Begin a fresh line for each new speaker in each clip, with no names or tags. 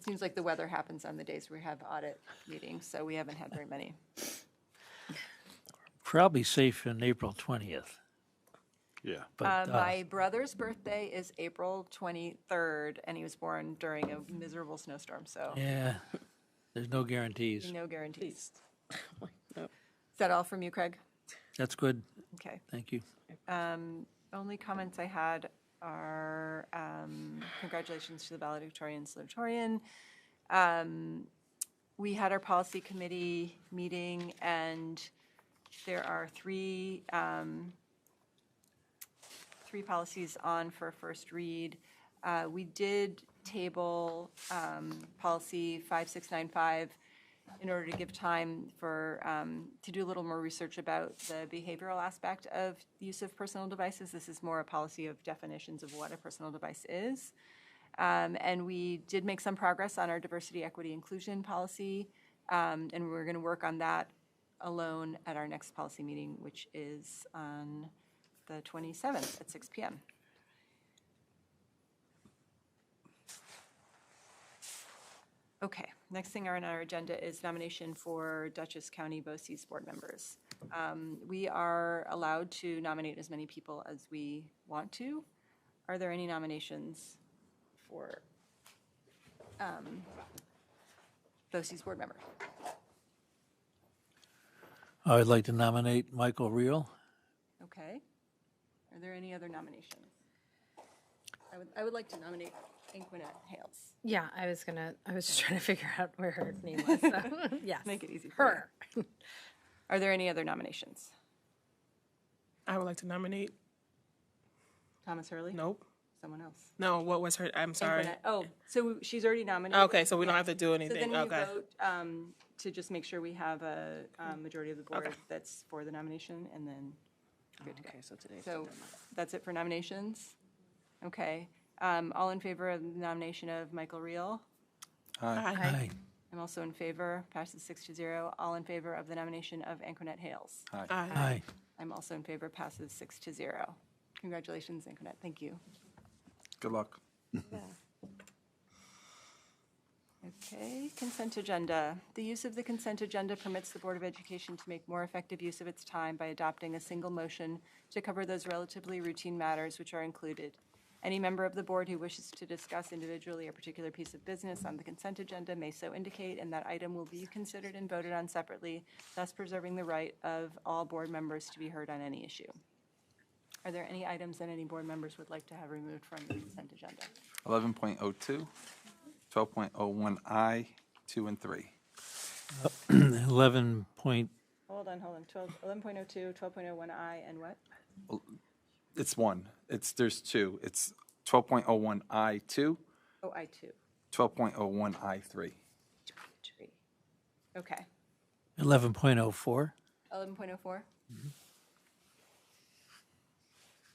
Seems like the weather happens on the days we have audit meetings, so we haven't had very many.
Probably safe in April 20th,
Yeah.
Uh,
but uh,
My brother's birthday is April 23rd, and he was born during a miserable snowstorm, so
yeah, there's no guarantees.
no guarantees.
No.
Is that all from you, Craig?
That's good.
Okay.
Thank you.
Only comments I had are um, congratulations to the valedictorian salutatorian. Um, We had our policy committee meeting, and there are three, um, three policies on for first read. Uh, We did table um, policy 5695 in order to give time for, um, to do a little more research about the behavioral aspect of the use of personal devices. This is more a policy of definitions of what a personal device is. Um, And we did make some progress on our diversity, equity, inclusion policy, um, and we're going to work on that alone at our next policy meeting, which is on the 27th at 6 PM. Okay, next thing on our agenda is nomination for Dutchess County BOCES board members. Um, We are allowed to nominate as many people as we want to. Are there any nominations for um, BOCES board member?
I would like to nominate Michael Reel.
Okay. Are there any other nominations?
I would, I would like to nominate.
Inquinet Hales.
Yeah, I was gonna, I was just trying to figure out where her name was, so, yes.
Make it easy for you.
Her.
Are there any other nominations?
I would like to nominate.
Thomas Hurley?
Nope.
Someone else?
No, what was her? I'm sorry.
Inquinet- Oh, so she's already nominated?
Okay, so we don't have to do
So then
anything.
we
Okay.
vote um, to just make sure we have a um, majority of the board that's for the nomination, and then good to go.
so today's.
So that's it for nominations? Okay. Um, All in favor of the nomination of Michael Reel?
Aye.
Aye.
I'm also in favor, passes six to zero. All in favor of the nomination of Anquinette Hales?
Aye.
Aye.
I'm also in favor, passes six to zero. Congratulations, Anquinette, thank you.
Good luck.
Okay, consent agenda. The use of the consent agenda permits the Board of Education to make more effective use of its time by adopting a single motion to cover those relatively routine matters which are included. Any member of the board who wishes to discuss individually a particular piece of business on the consent agenda may so indicate, and that item will be considered and voted on separately, thus preserving the right of all board members to be heard on any issue. Are there any items that any board members would like to have removed from the consent agenda?
11.02, 12.01I, 2 and 3.
11 point,
Hold on, hold on. 12, 11.02, 12.01I, and what?
It's one. It's, there's two. It's 12.01I2,
Oh, I2.
12.01I3.
Three. Okay.
11.04.
11.04?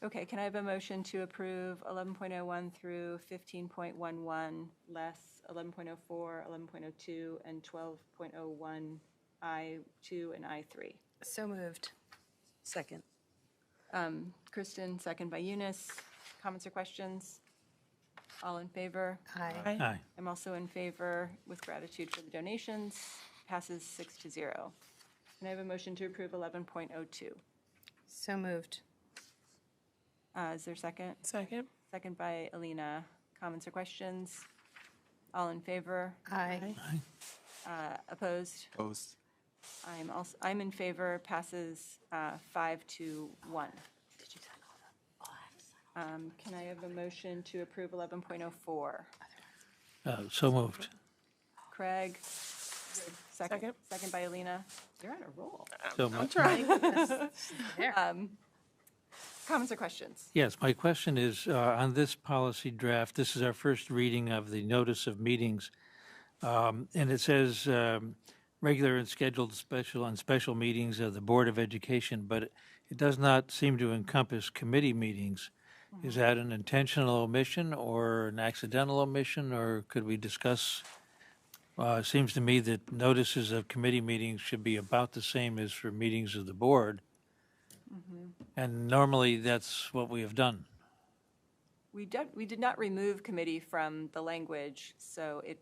Okay, can I have a motion to approve 11.01 through 15.11, less 11.04, 11.02, and 12.01, I2 and I3?
So moved.
Second.
Kristen, second by Eunice. Comments or questions? All in favor?
Aye.
Aye.
I'm also in favor with gratitude for the donations. Passes six to zero. And I have a motion to approve 11.02.
So moved.
Uh, Is there a second?
Second.
Second by Alina. Comments or questions? All in favor?
Aye.
Uh, Opposed?
Opposed?
I'm also, I'm in favor. Passes uh, five to one. Um, Can I have a motion to approve 11.04?
Uh, So moved.
Craig?
Second.
Second by Alina. You're on a roll.
So moved.
Comments or questions?
Yes, my question is, uh, on this policy draft, this is our first reading of the notice of meetings. Um, And it says, um, regular and scheduled special and special meetings of the Board of Education, but it does not seem to encompass committee meetings. Is that an intentional omission or an accidental omission, or could we discuss? uh, It seems to me that notices of committee meetings should be about the same as for meetings of the board. And normally, that's what we have done.
We did, we did not remove committee from the language, so it